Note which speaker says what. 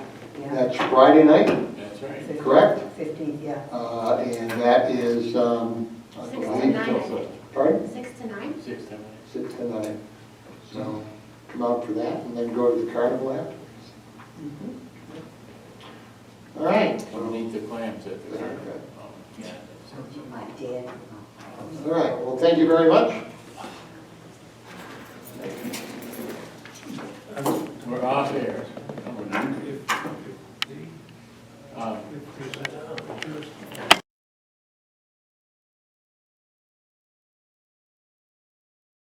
Speaker 1: That's Friday night,
Speaker 2: That's right.
Speaker 1: correct?
Speaker 3: Fifteenth, yeah.
Speaker 1: Uh, And that is, um, I
Speaker 4: Six to
Speaker 1: believe-
Speaker 4: nine.
Speaker 1: Pardon?
Speaker 4: Six to nine?
Speaker 2: Six to nine.
Speaker 1: Six to nine. So come out for that and then go to the carnival afterwards. All right.
Speaker 2: We'll need the clams at the
Speaker 1: Okay.
Speaker 2: curb. Um, yeah.
Speaker 3: Did.
Speaker 1: All right, well, thank you very much.